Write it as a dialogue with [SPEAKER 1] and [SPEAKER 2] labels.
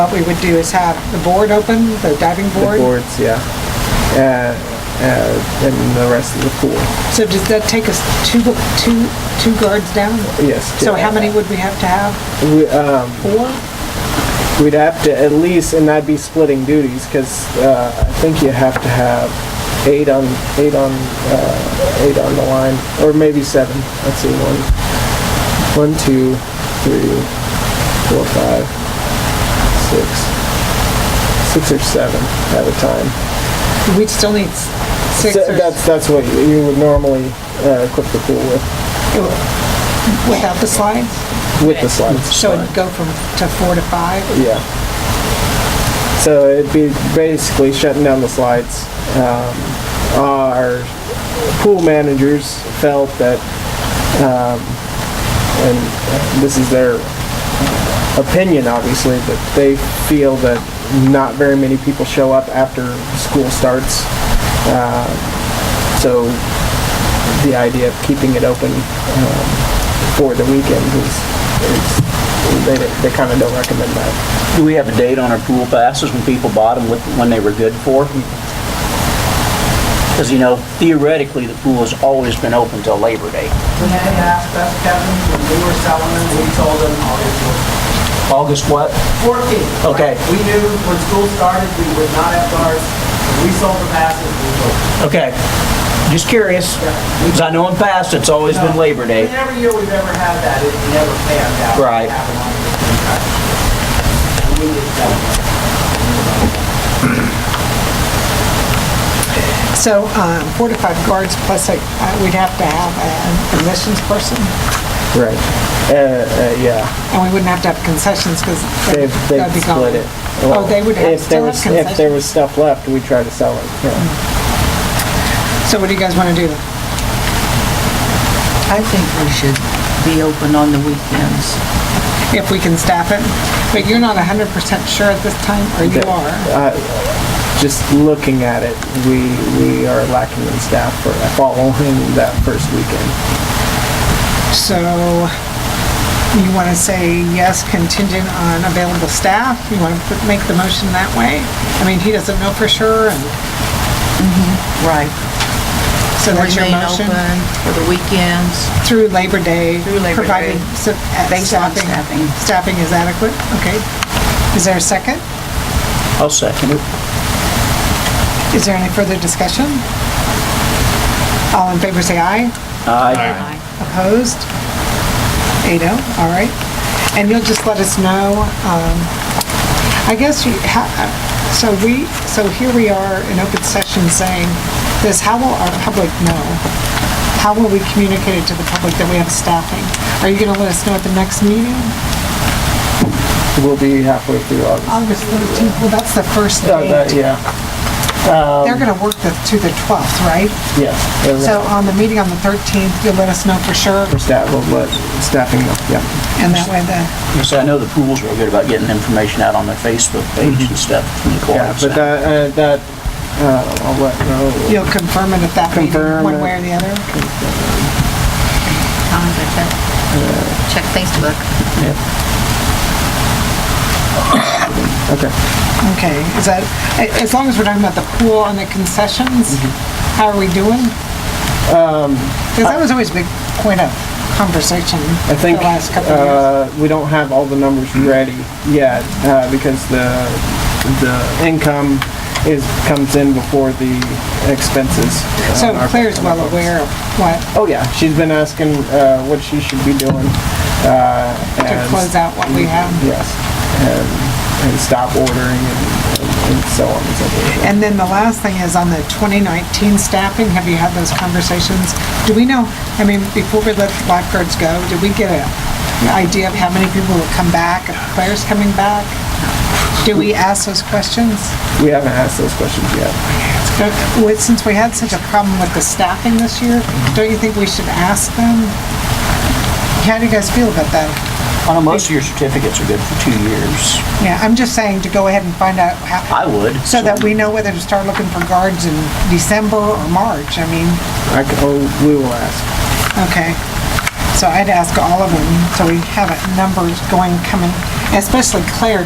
[SPEAKER 1] What we would do is have the board open, the diving
[SPEAKER 2] The
[SPEAKER 1] board.
[SPEAKER 2] boards, yeah. Uh, uh, And the rest of the pool,
[SPEAKER 1] So does that take us two, two, two guards down?
[SPEAKER 2] yes.
[SPEAKER 1] So
[SPEAKER 2] yeah.
[SPEAKER 1] how many would we have to have?
[SPEAKER 2] We, um,
[SPEAKER 1] Four?
[SPEAKER 2] We'd have to at least, and I'd be splitting duties, because I think you have to have eight on, eight on, uh, eight on the line, or maybe seven. Let's see, one, one, two, three, four, five, six, six or seven at a time.
[SPEAKER 1] We'd still need s- six
[SPEAKER 2] So
[SPEAKER 1] or...
[SPEAKER 2] That's, that's what you you would normally uh, equip the pool with,
[SPEAKER 1] Without the slides?
[SPEAKER 2] with the slides.
[SPEAKER 1] So it'd go from, to four to five?
[SPEAKER 2] Yeah. So it'd be basically shutting down the slides. Um, our pool managers felt that, um, and this is their opinion obviously, but they feel that not very many people show up after school starts. Uh, so the idea of keeping it open um, for the weekend is, is they, they kind of don't recommend that.
[SPEAKER 3] Do we have a date on our pool passes when people bought them, with- when they were good for? Because, you know, theoretically, the pool has always been open till Labor Day.
[SPEAKER 4] When they asked us, Kevin, when we were selling them, we told them August
[SPEAKER 3] August what?
[SPEAKER 4] 14th.
[SPEAKER 3] Okay.
[SPEAKER 4] We knew when school started, we would not have guards. When we sold the passes, we sold.
[SPEAKER 3] Okay. Just curious, because I know in past, it's always been Labor Day.
[SPEAKER 4] And every year we've ever had that, it never panned out.
[SPEAKER 3] Right.
[SPEAKER 4] It happened on the same time. And we did sell them.
[SPEAKER 1] So um, four to five guards plus like, uh, we'd have to have an admissions person?
[SPEAKER 2] Right. Uh, uh, yeah,
[SPEAKER 1] And we wouldn't have to have concessions because
[SPEAKER 2] they've,
[SPEAKER 1] that'd
[SPEAKER 2] they've
[SPEAKER 1] be gone.
[SPEAKER 2] split it.
[SPEAKER 1] Oh, they would have,
[SPEAKER 2] If there
[SPEAKER 1] still have
[SPEAKER 2] was, if there
[SPEAKER 1] concessions. Mm-hmm.
[SPEAKER 2] was stuff left, we'd try to sell it, yeah.
[SPEAKER 1] So what do you guys want to do?
[SPEAKER 5] I think we should be open on the weekends.
[SPEAKER 1] If we can staff it? But you're not 100% sure at this time, or you
[SPEAKER 2] That-
[SPEAKER 1] are?
[SPEAKER 2] Just looking at it, we, we are lacking in staff for following that first weekend.
[SPEAKER 1] So you want to say yes contingent on available staff? You want to make the motion that way? I mean, he doesn't know for sure, and
[SPEAKER 5] Right.
[SPEAKER 1] so that's your motion?
[SPEAKER 5] Remain open for the weekends.
[SPEAKER 1] Through Labor Day?
[SPEAKER 5] Through Labor
[SPEAKER 1] provided
[SPEAKER 5] Day.
[SPEAKER 1] su- at
[SPEAKER 5] Based on staffing.
[SPEAKER 1] staffing- Staffing is adequate? Okay. Is there a second?
[SPEAKER 3] I'll second it.
[SPEAKER 1] Is there any further discussion? All in favor, say aye.
[SPEAKER 3] Aye.
[SPEAKER 1] Opposed? Eight oh, all right. And you'll just let us know, um, I guess you, ha- uh, so we, so here we are in open session saying this, how will our public know? How will we communicate it to the public that we have staffing? Are you gonna let us know at the next meeting?
[SPEAKER 2] We'll be halfway through August.
[SPEAKER 1] August thirteenth, well, that's the first
[SPEAKER 2] Uh, that- um,
[SPEAKER 1] day.
[SPEAKER 2] Yeah,
[SPEAKER 1] They're gonna work the, to the twelfth, right?
[SPEAKER 2] yeah. they're-
[SPEAKER 1] So on the meeting on the thirteenth, you'll let us know for sure,
[SPEAKER 2] For staff, we'll let staffing know, yeah.
[SPEAKER 1] and that way the
[SPEAKER 3] You see, I know the pools were good about getting information out on their Facebook page and stuff. from the
[SPEAKER 2] Yeah,
[SPEAKER 3] co-ops.
[SPEAKER 2] but that, uh, that, uh, I'll let, know.
[SPEAKER 1] You'll confirm it at that meeting,
[SPEAKER 2] Confirm
[SPEAKER 1] one
[SPEAKER 2] it.
[SPEAKER 1] way or the other?
[SPEAKER 6] I'll have to check, check Facebook.
[SPEAKER 2] okay.
[SPEAKER 1] Okay, is that, a- as long as we're talking about the pool and the concessions,
[SPEAKER 2] Mm-hmm.
[SPEAKER 1] how are we doing?
[SPEAKER 2] Um,
[SPEAKER 1] Because that was always a big point of conversation
[SPEAKER 2] I
[SPEAKER 1] the
[SPEAKER 2] think
[SPEAKER 1] last couple of years.
[SPEAKER 2] uh, we don't have all the numbers ready yet uh, because the the income is comes in before the expenses. uh,
[SPEAKER 1] So
[SPEAKER 2] on our-
[SPEAKER 1] Claire's
[SPEAKER 2] on our
[SPEAKER 1] well
[SPEAKER 2] books.
[SPEAKER 1] aware of what,
[SPEAKER 2] Oh yeah, she's been asking uh, what she should be doing. Uh,
[SPEAKER 1] to
[SPEAKER 2] and-
[SPEAKER 1] close out what we have.
[SPEAKER 2] Yes, and, and stop ordering and, and, and so on and so forth.
[SPEAKER 1] And then the last thing is on the 2019 staffing, have you had those conversations? Do we know, I mean, before we let the lifeguards go, did we get a- an idea of how many people will come back, if players coming back? Do we ask those questions?
[SPEAKER 2] We haven't asked those questions yet.
[SPEAKER 1] Don't- with- Since we had such a problem with the staffing this year, don't you think we should ask them? How do you guys feel about that?
[SPEAKER 3] I know most of your certificates are good for two years.
[SPEAKER 1] Yeah, I'm just saying to go ahead and find out how.
[SPEAKER 3] I would.
[SPEAKER 1] So that we know whether to start looking for guards in December or March, I mean.
[SPEAKER 2] I c oh, we will ask.
[SPEAKER 1] Okay, so I'd ask all of them, so we have a numbers going, coming, especially Claire,